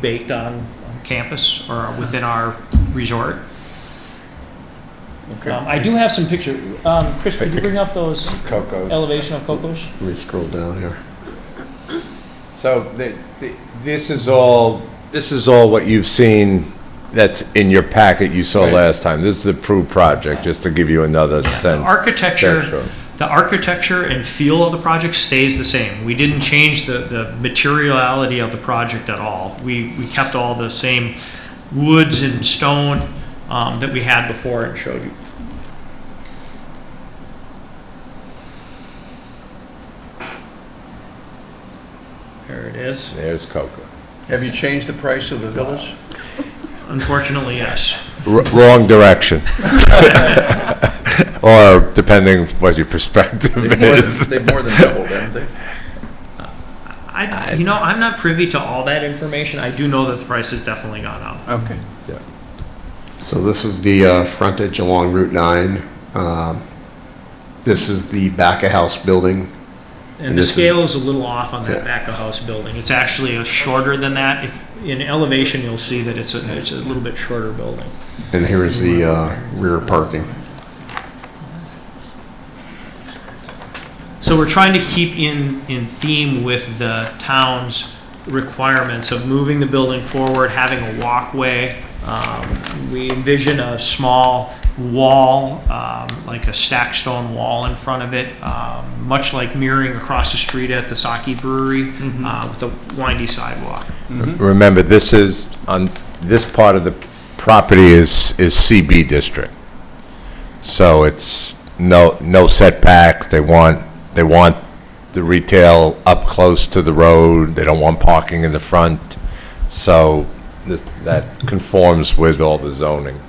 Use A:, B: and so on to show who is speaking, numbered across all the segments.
A: baked on campus or within our resort.
B: Okay.
A: Um, I do have some picture, um, Chris, could you bring up those
B: Coco's.
A: elevation of Cocos?
C: Let me scroll down here.
B: So the- the- this is all, this is all what you've seen that's in your packet you saw
C: Right.
B: last time. This is the approved project, just to give you another
A: The
B: sense. Sure,
A: architecture,
B: sure.
A: the architecture and feel of the project stays the same. We didn't change the, the materiality of the project at all. We, we kept all the same woods and stone um, that we had before and showed you. There it is.
B: There's Coco.
C: Have you changed the price of the villas?
A: Unfortunately, yes.
B: R- Wrong direction. Or depending what your perspective is.
C: They've more than doubled, haven't they?
A: I, you know, I'm not privy to all that information. I do know that the price has definitely gone up.
C: Okay.
D: So this is the uh, frontage along Route 9. Um, This is the back-of-house building.
A: And
D: And
A: the
D: this is-
A: scale is a little off on that
D: Yeah.
A: back of house building. It's actually a shorter than that. If, in elevation, you'll see that it's a, it's a little bit shorter building.
D: And here is the uh, rear parking.
A: So we're trying to keep in, in theme with the town's requirements of moving the building forward, having a walkway. Um, We envision a small wall, um, like a stacked stone wall in front of it, um, much like mirroring across the street at the Saki Brewery
D: Mm-hmm.
A: uh, with a windy sidewalk.
B: Remember, this is, on, this part of the property is, is CB district. So it's no, no setbacks, they want, they want the retail up close to the road, they don't want parking in the front, so th- that conforms with all the zoning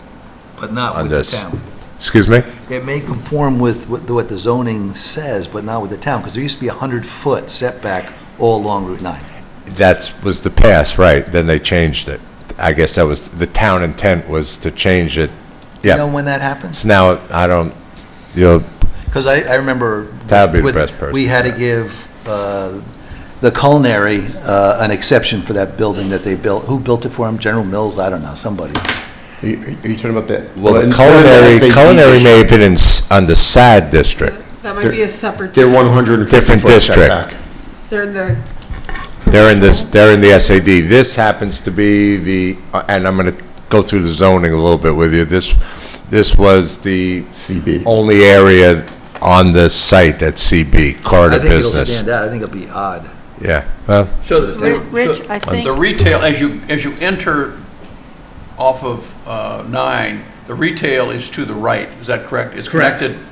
E: But not
B: on
E: with the
B: this.
E: town.
B: Excuse me?
E: It may conform with what the- what the zoning says, but not with the town, because there used to be a 100-foot setback all along Route 9.
B: That was the past, right, then they changed it. I guess that was, the town intent was to change it,
E: You know
B: yeah.
E: when that happens?
B: So now, I don't, you know,
E: Because I, I remember.
B: That'd be the
E: with-
B: best person,
E: We had to
B: yeah.
E: give uh, the culinary uh, an exception for that building that they built. Who built it for them? General Mills? I don't know, somebody.
D: Are you are you talking about that?
B: Well,
D: in-
B: the
D: they're in
B: culinary,
D: the SAP
B: culinary may have
D: district.
B: been in, s- on the SAD district.
F: That might
D: They're-
F: be a separate.
D: They're 150
B: Different
D: foot
B: district.
D: setback.
F: They're in the,
B: They're in this, they're in the SAD. This happens to be the, uh, and I'm gonna go through the zoning a little bit with you. This, this was the
D: CB.
B: only area on the site that's CB,
E: I
B: corridor
E: think it'll
B: business.
E: stand out. I think it'll be odd.
B: Yeah, well,
C: So the-
G: Ri- Rich, I
C: so the
G: think-
C: retail, as you, as you enter off of uh, nine, the retail is to the right, is that correct? It's
A: Correct.
C: connected,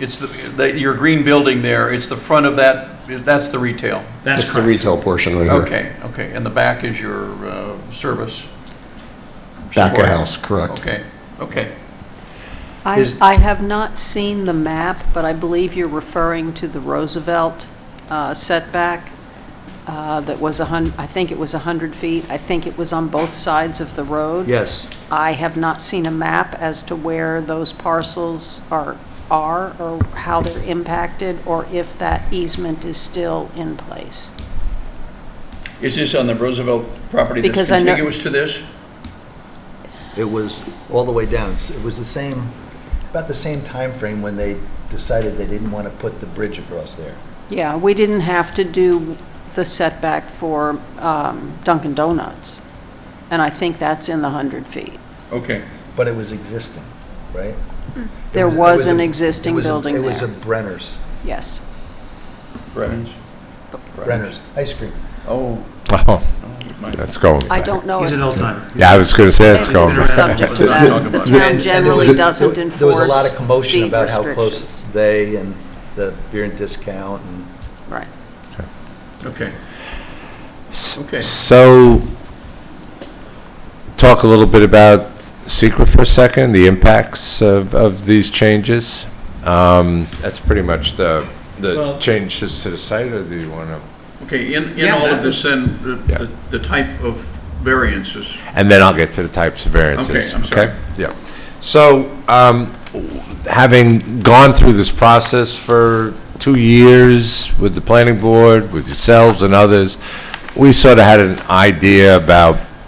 C: it's the, the- your green building there, it's the front of that, that's the retail.
A: That's
D: That's the
A: correct.
D: retail portion right here.
C: Okay, okay, and the back is your uh, service?
D: Back of
C: Support.
D: house, correct.
C: Okay, okay.
G: I,
E: Is-
G: I have not seen the map, but I believe you're referring to the Roosevelt uh, setback uh, that was a hun, I think it was 100 feet. I think it was on both sides of the road.
E: Yes.
G: I have not seen a map as to where those parcels are, are, or how they're impacted, or if that easement is still in place.
H: Is this on the Roosevelt property that's
G: Because I know-
H: contiguous to this?
E: It was all the way down. It was the same, about the same time frame when they decided they didn't want to put the bridge across there.
G: Yeah, we didn't have to do the setback for um, Dunkin' Donuts, and I think that's in the 100 feet.
H: Okay.
E: But it was existing, right?
G: There
E: It it
G: was an
E: a-
G: existing
E: it was a-
G: building
E: It was a
G: there,
E: Brenner's,
G: yes.
H: Brennan's.
E: Brenner's ice cream.
H: Oh,
B: oh,
H: my
B: that's going.
G: I don't know
A: He's an
G: if
A: old timer.
B: Yeah, I was gonna say that's
G: if it's
B: going.
G: a subject to
H: Let's not talk
G: that. The
H: about it.
G: town
E: And there
G: generally
E: was-
G: doesn't
E: there-
G: enforce
E: There was a lot of commotion
G: deed
E: about how close
G: restrictions.
E: they and the beer and discount and
G: Right.
H: okay. Okay.
B: So, talk a little bit about secret for a second, the impacts of, of these changes. Um, That's pretty much the, the
A: Well-
B: changes to the site, or do you want to?
H: Okay, in, in
A: Yeah,
H: all
A: that
H: of this, then, the-
B: Yeah.
H: the, the type of variances,
B: And then I'll get to the types of
H: Okay,
B: variances.
H: I'm sorry.
B: Yeah. So, um, having gone through this process for two years with the planning board, with yourselves and others, we sort of had an idea about